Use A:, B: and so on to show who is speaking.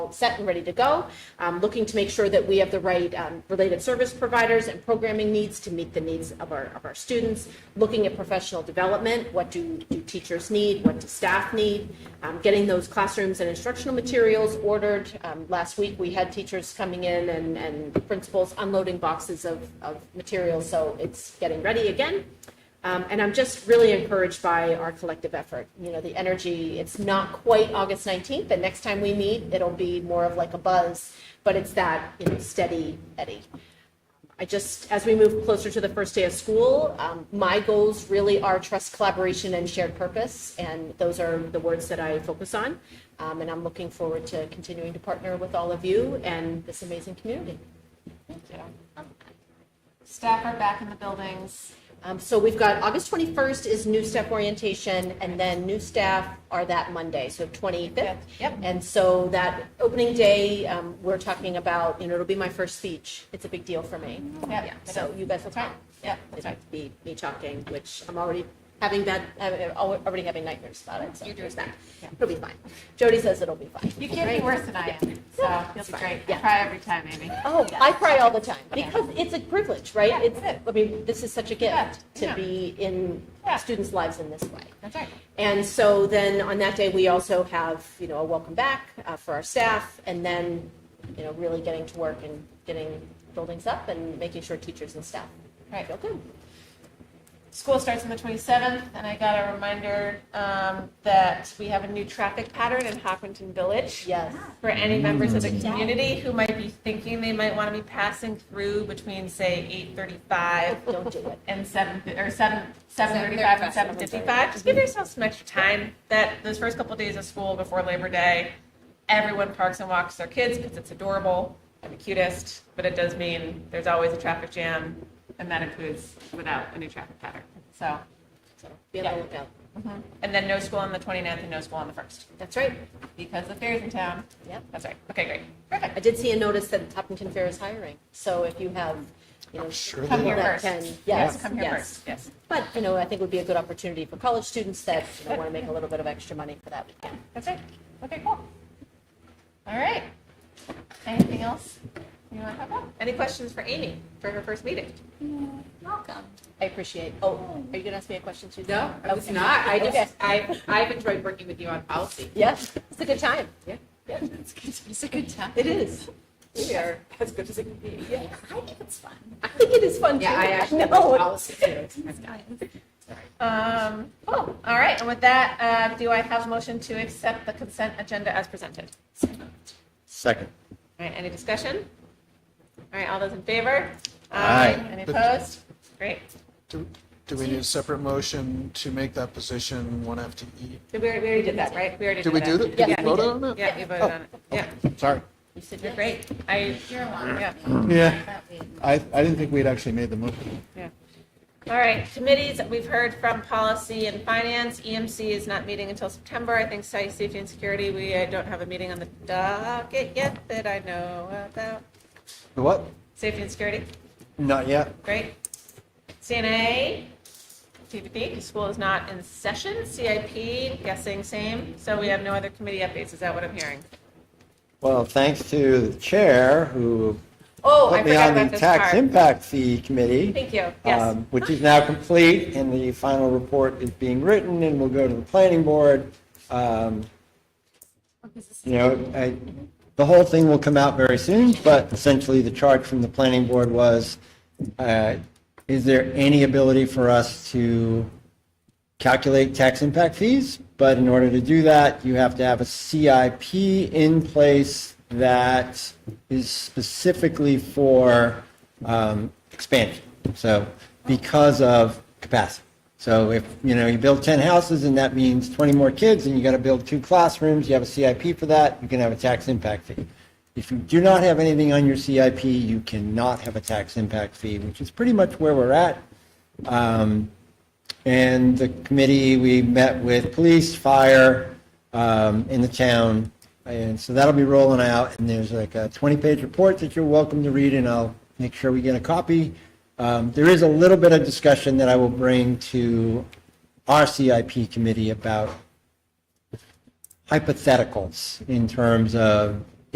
A: set and ready to go. Um, looking to make sure that we have the right um, related service providers and programming needs to meet the needs of our, of our students. Looking at professional development, what do, do teachers need, what do staff need? Um, getting those classrooms and instructional materials ordered. Um, last week, we had teachers coming in and, and principals unloading boxes of, of materials, so it's getting ready again. Um, and I'm just really encouraged by our collective effort. You know, the energy, it's not quite August 19th, and next time we meet, it'll be more of like a buzz, but it's that, you know, steady eddy. I just, as we move closer to the first day of school, um, my goals really are trust, collaboration, and shared purpose. And those are the words that I focus on. Um, and I'm looking forward to continuing to partner with all of you and this amazing community.
B: Staff are back in the buildings.
A: Um, so we've got August 21st is new staff orientation, and then new staff are that Monday, so 25th.
B: Yep.
A: And so that opening day, um, we're talking about, you know, it'll be my first speech. It's a big deal for me. Yeah, so you guys will talk.
B: Yep.
A: It'll be me talking, which I'm already having bad, I'm already having nightmares about it, so
B: You're doing
A: there's that.
B: Yeah.
A: It'll be fine. Jody says it'll be fine.
B: You can't be
A: Right?
B: worse than I am, so
A: Yeah.
B: you'll
A: It's
B: be
A: fine.
B: great. I
A: Yeah.
B: Try every time, Amy.
A: Oh, I cry all the time
B: Yeah.
A: because it's a privilege, right?
B: Yeah,
A: it's,
B: it is.
A: I mean, this is such a gift
B: Yeah,
A: to
B: yeah.
A: be in
B: Yeah.
A: students' lives in this way.
B: That's right.
A: And so then on that day, we also have, you know, a welcome back uh, for our staff and then, you know, really getting to work and getting buildings up and making sure teachers and staff
B: Right.
A: feel good.
B: School starts on the 27th, and I got a reminder um, that we have a new traffic pattern in Hopkinton Village.
A: Yes.
B: For any members of the community who might be thinking they might want to be passing through between, say, 8:35
A: Don't do it.
B: and seven or seven seven thirty five and seven fifty five. Just give yourself some extra time. That those first couple days of school before Labor Day, everyone parks and walks their kids because it's adorable and the cutest. But it does mean there's always a traffic jam, and that includes without a new traffic pattern. So,
A: So be on
B: Yeah.
A: the lookout.
B: and then no school on the 29th and no school on the first
A: That's right.
B: because the fair's in town.
A: Yep.
B: That's right. Okay, great, perfect.
A: I did see a notice that Hopkinton Fair is hiring. So if you have, you know,
C: Sure
B: Come
C: they
B: here
C: are.
A: that
B: first.
A: can,
B: Yes,
A: yes,
B: come here
A: yes.
B: first. Yes,
A: But, you know, I think it would be a good opportunity for college students that, you know, want to make a little bit of extra money for that weekend.
B: that's it. Okay, cool. All right. Anything else you want to talk about? Any questions for Amy for her first meeting?
D: Welcome.
A: I appreciate, oh, are you going to ask me a question, Susan?
E: No, I was
A: Okay.
E: not. I
A: Okay.
E: just, I, I've enjoyed working with you on policy.
A: Yes, it's a good time.
E: Yeah.
A: Yeah.
D: It's a good time.
A: It is. We are.
E: As good as it can be.
D: I think it's fun.
A: I think it is fun too.
E: Yeah, I actually
A: know.
E: love policy too.
B: Um, cool. All right. And with that, uh, do I have a motion to accept the consent agenda as presented?
C: Second.
B: All right. Any discussion? All right. All those in favor?
C: Aye.
B: Any opposed? Great.
C: Do do we need a separate motion to make that position one FTE?
B: Did We already, we already did that, right? We already
C: Did we do that?
B: that.
C: Did we
A: Yeah.
C: vote on it?
B: Yeah, we voted on it. Yeah,
C: Sorry.
A: You said
B: you're
A: yes.
B: great. I,
D: You're along
B: Yeah.
D: with me.
C: Yeah.
D: That way we-
C: I, I didn't think we'd actually made the motion.
B: all right. Committees, we've heard from policy and finance. EMC is not meeting until September. I think site safety and security, we uh, don't have a meeting on the docket yet that I know about.
C: The What?
B: Safety and security.
C: Not yet.
B: Great. CNA, TBD, school is not in session. CIP, guessing same. So we have no other committee updates. Is that what I'm hearing?
F: Well, thanks to the chair who
B: Oh, I
F: put me
B: forgot
F: on
B: about
F: the
B: this
F: tax
B: part.
F: impact fee committee,
B: Thank you. Yes.
F: um, which is now complete, and the final report is being written and will go to the planning board. Um, You know, I, the whole thing will come out very soon, but essentially the charge from the planning board was, uh, is there any ability for us to calculate tax impact fees, but in order to do that, you have to have a CIP in place that is specifically for um, expansion. So because of capacity. So if, you know, you build 10 houses and that means 20 more kids and you got to build two classrooms, you have a CIP for that, you can have a tax impact fee. If you do not have anything on your CIP, you cannot have a tax impact fee, which is pretty much where we're at. Um, and the committee, we met with police, fire, um, in the town. And so that'll be rolling out, and there's like a 20-page report that you're welcome to read, and I'll make sure we get a copy. Um, There is a little bit of discussion that I will bring to our CIP committee about hypotheticals in terms of